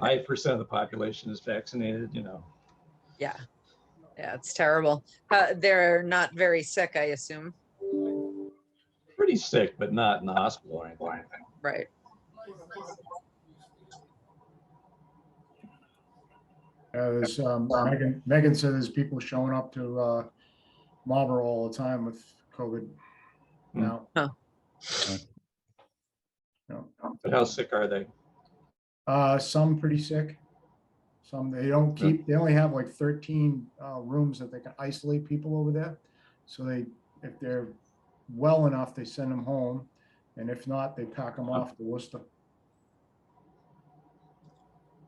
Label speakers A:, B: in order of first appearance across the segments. A: five percent of the population is vaccinated, you know.
B: Yeah. Yeah, it's terrible. Uh, they're not very sick, I assume.
A: Pretty sick, but not in the hospital or anything.
B: Right.
C: Yeah, there's, um, Megan, Megan said there's people showing up to, uh, Marlboro all the time with COVID now.
B: Huh.
C: Yeah.
A: But how sick are they?
C: Uh, some pretty sick. Some, they don't
A: Yeah.
C: keep, they only have like thirteen, uh, rooms that they can isolate people over there. So they, if they're well enough, they send them home, and if not, they pack them off to Worcester.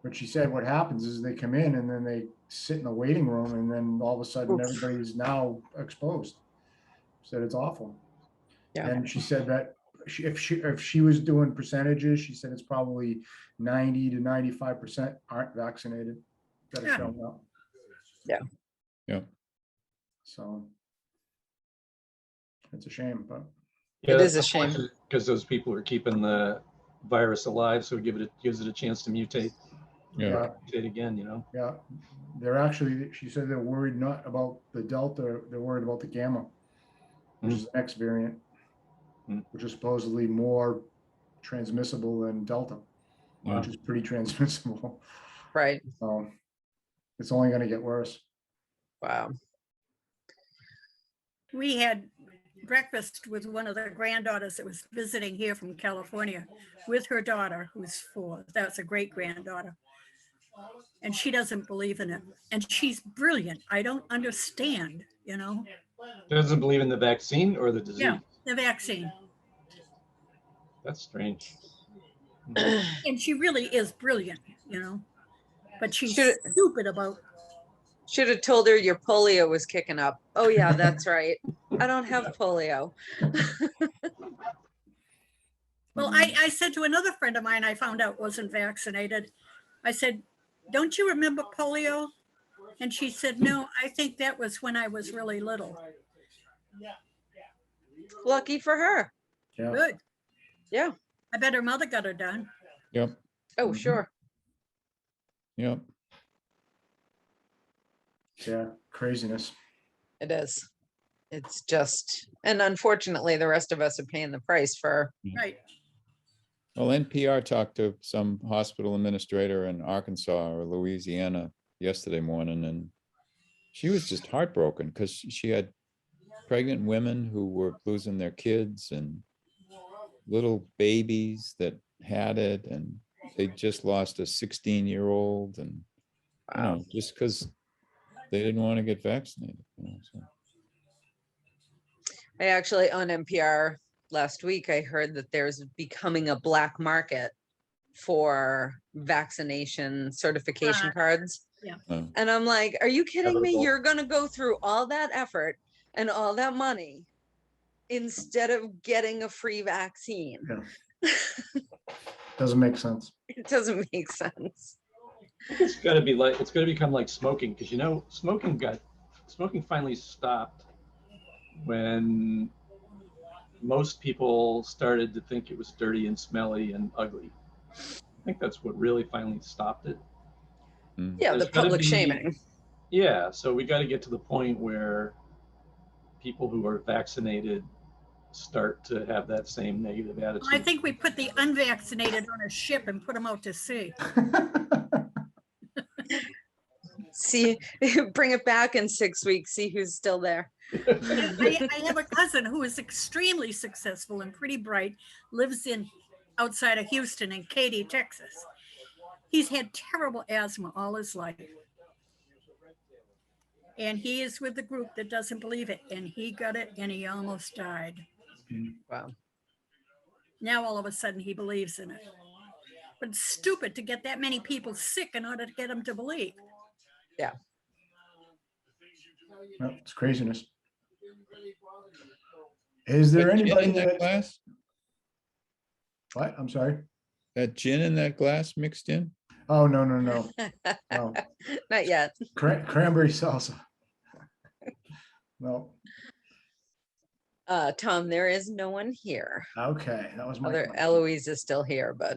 C: But she said what happens is they come in and then they sit in the waiting room, and then all of a sudden,
B: Oof.
C: everybody's now exposed. Said it's awful.
B: Yeah.
C: And she said that she- if she, if she was doing percentages, she said it's probably ninety to ninety-five percent aren't vaccinated. that are
B: Yeah.
C: showing up.
B: Yeah.
D: Yeah.
C: So. It's a shame, but
A: Yeah,
B: It is a shame.
A: Because those people are keeping the virus alive, so it give it, a- gives it a chance to mutate,
D: Yeah,
C: yeah,
A: mutate again, you know?
C: yeah, they're actually, she said they're worried not about the delta, they're worried about the gamma. Which is the next variant.
D: Hmm.
A: Mm.
C: Which is supposedly more transmissible than delta,
D: Wow.
C: which is pretty transmissible.
B: Right.
C: So it's only gonna get worse.
B: Wow.
E: We had breakfast with one of the granddaughters that was visiting here from California with her daughter, who's four. That's a great granddaughter. And she doesn't believe in it. And she's brilliant. I don't understand, you know,
A: Doesn't believe in the vaccine or the disease.
E: Yeah. the vaccine.
A: That's strange.
E: And she really is brilliant, you know, but she's
B: Should-
E: stupid about,
B: Should have told her your polio was kicking up. Oh, yeah, that's right. I don't have polio.
E: well, I, I said to another friend of mine, I found out wasn't vaccinated. I said, don't you remember polio? And she said, no, I think that was when I was really little.
B: Lucky for her.
C: Yeah,
E: Good.
B: Yeah.
E: I bet her mother got her done.
D: yep,
B: Oh,
C: Mhm.
B: sure.
D: yep.
C: yeah, craziness.
B: It is. It's just, and unfortunately, the rest of us are paying the price for,
E: Right.
D: Well, NPR talked to some hospital administrator in Arkansas or Louisiana yesterday morning and she was just heartbroken because she had pregnant women who were losing their kids and little babies that had it and they just lost a 16-year-old and you know, just because they didn't want to get vaccinated. you know, so.
B: I actually on NPR last week, I heard that there's becoming a black market for vaccination certification
E: Ah,
B: cards.
E: yeah.
D: Oh.
B: And I'm like, are you kidding me?
A: Inevitable.
B: You're gonna go through all that effort and all that money instead of getting a free vaccine.
C: Doesn't make sense.
B: It doesn't make sense.
A: It's gotta be like, it's gonna become like smoking, because you know, smoking got, smoking finally stopped when most people started to think it was dirty and smelly and ugly. I think that's what really finally stopped it.
D: Mm.
B: Yeah, the
A: There's gotta
B: public
A: be-
B: shaming.
A: Yeah, so we got to get to the point where people who are vaccinated start to have that same negative attitude.
E: I think we put the unvaccinated on a ship and put them out to sea.
B: See, bring it back in six weeks, see who's still there.
E: I, I have a cousin who is extremely successful and pretty bright, lives in outside of Houston in Katy, Texas. He's had terrible asthma all his life. And he is with the group that doesn't believe it. And he got it and he almost died.
B: Wow.
E: Now all of a sudden he believes in it. But it's stupid to get that many people sick in order to get them to believe.
C: No, It's craziness. Is there
D: That gin
C: anybody
D: in that
C: that,
D: glass?
C: what, I'm sorry?
D: That gin in that glass mixed in?
C: Oh, no, no, no. No,
B: Not yet.
C: Cran- cranberry salsa. No,
B: Uh, Tom, there is no one here.
C: okay, that was my.
B: Other
C: question.
B: Eloise is still here, but